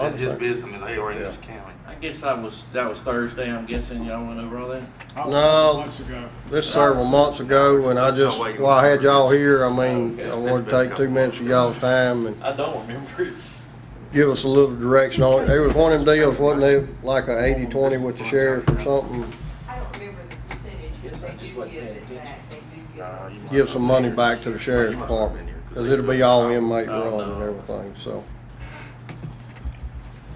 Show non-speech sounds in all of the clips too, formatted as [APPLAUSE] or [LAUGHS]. That's his business, they are in this county. I guess I was, that was Thursday, I'm guessing y'all went over all that? I was No. Months ago. This several months ago, when I just, well, I had y'all here, I mean, I wanted to take two minutes of y'all's time and I don't remember [LAUGHS] it. give us a little direction on it. There was one of them deals, wasn't it, like a eighty-twenty with the sheriff or something? I don't remember the percentage, Yes, I but they just do wasn't give paying it back, they do give Nah, it. you must Give some money not back to the sheriff's department, because it'll be all inmate run and everything, so.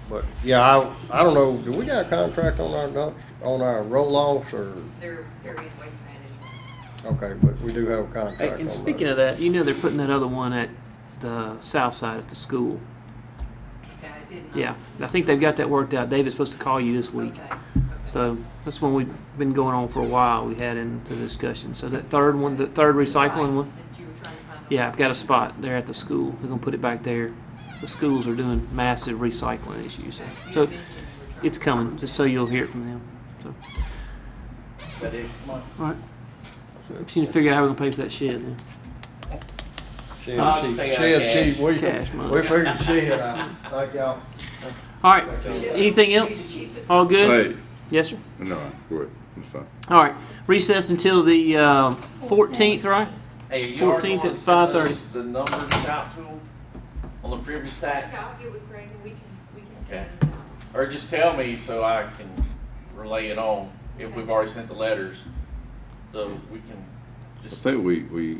But, yeah, I, I don't know, do we got a contract on our dump, on our roll-offs or, They're, they're in waste management. okay, but we do have a contract on Hey, that. And speaking of that, you know they're putting that other one at the south side at the school. Yeah, I did not. Yeah, I think they've got that worked out. David's supposed to call you this week. Okay, okay. So that's one we've been going on for a while. We had into the discussion. So that third one, the third recycling one, That you were trying to find. yeah, I've got a spot there at the school. We're gonna put it back there. The schools are doing massive recycling issues. Okay, you So mentioned you were trying it's to- coming, just so you'll hear it from them. So, That is, come on. all right. Just need to figure out how we're gonna pay for that shed then. Shed, I'll just shed, take out shed, cash. shed, we, Cash money. we figured shed out, thank y'all. All right, anything He's else? Oh. the cheapest. All good? Hey, Yes, sir? no, go ahead. It's fine. All right, recess until the uh, 14th, right? Hey, are you already 14th going to at send 5:30. those- the numbers out to them on the previous tax? Okay, I'll get with Greg and we can, we can Okay. send those out. Or just tell me so I can relay it on, if we've already sent the letters, so we can I just, think we, we,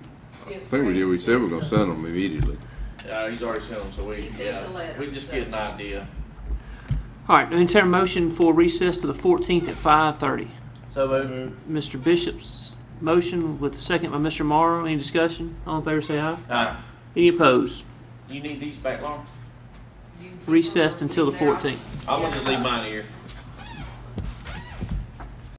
I Yes, think we Greg did, we said we're gonna sent send them immediately. uh, he's already sent them, so we, He sent the yeah, letter, we just so- get an idea. All right, entertain a motion for recess to the 14th at 5:30. So moved. Mr. Bishop's motion with a second by Mr. Morrow. Any discussion? All in favor, say aye. Uh, Any opposed? you need these back, Laura? them. You can keep them Recessed or until the keep them out. 14th. I'm gonna just leave mine here.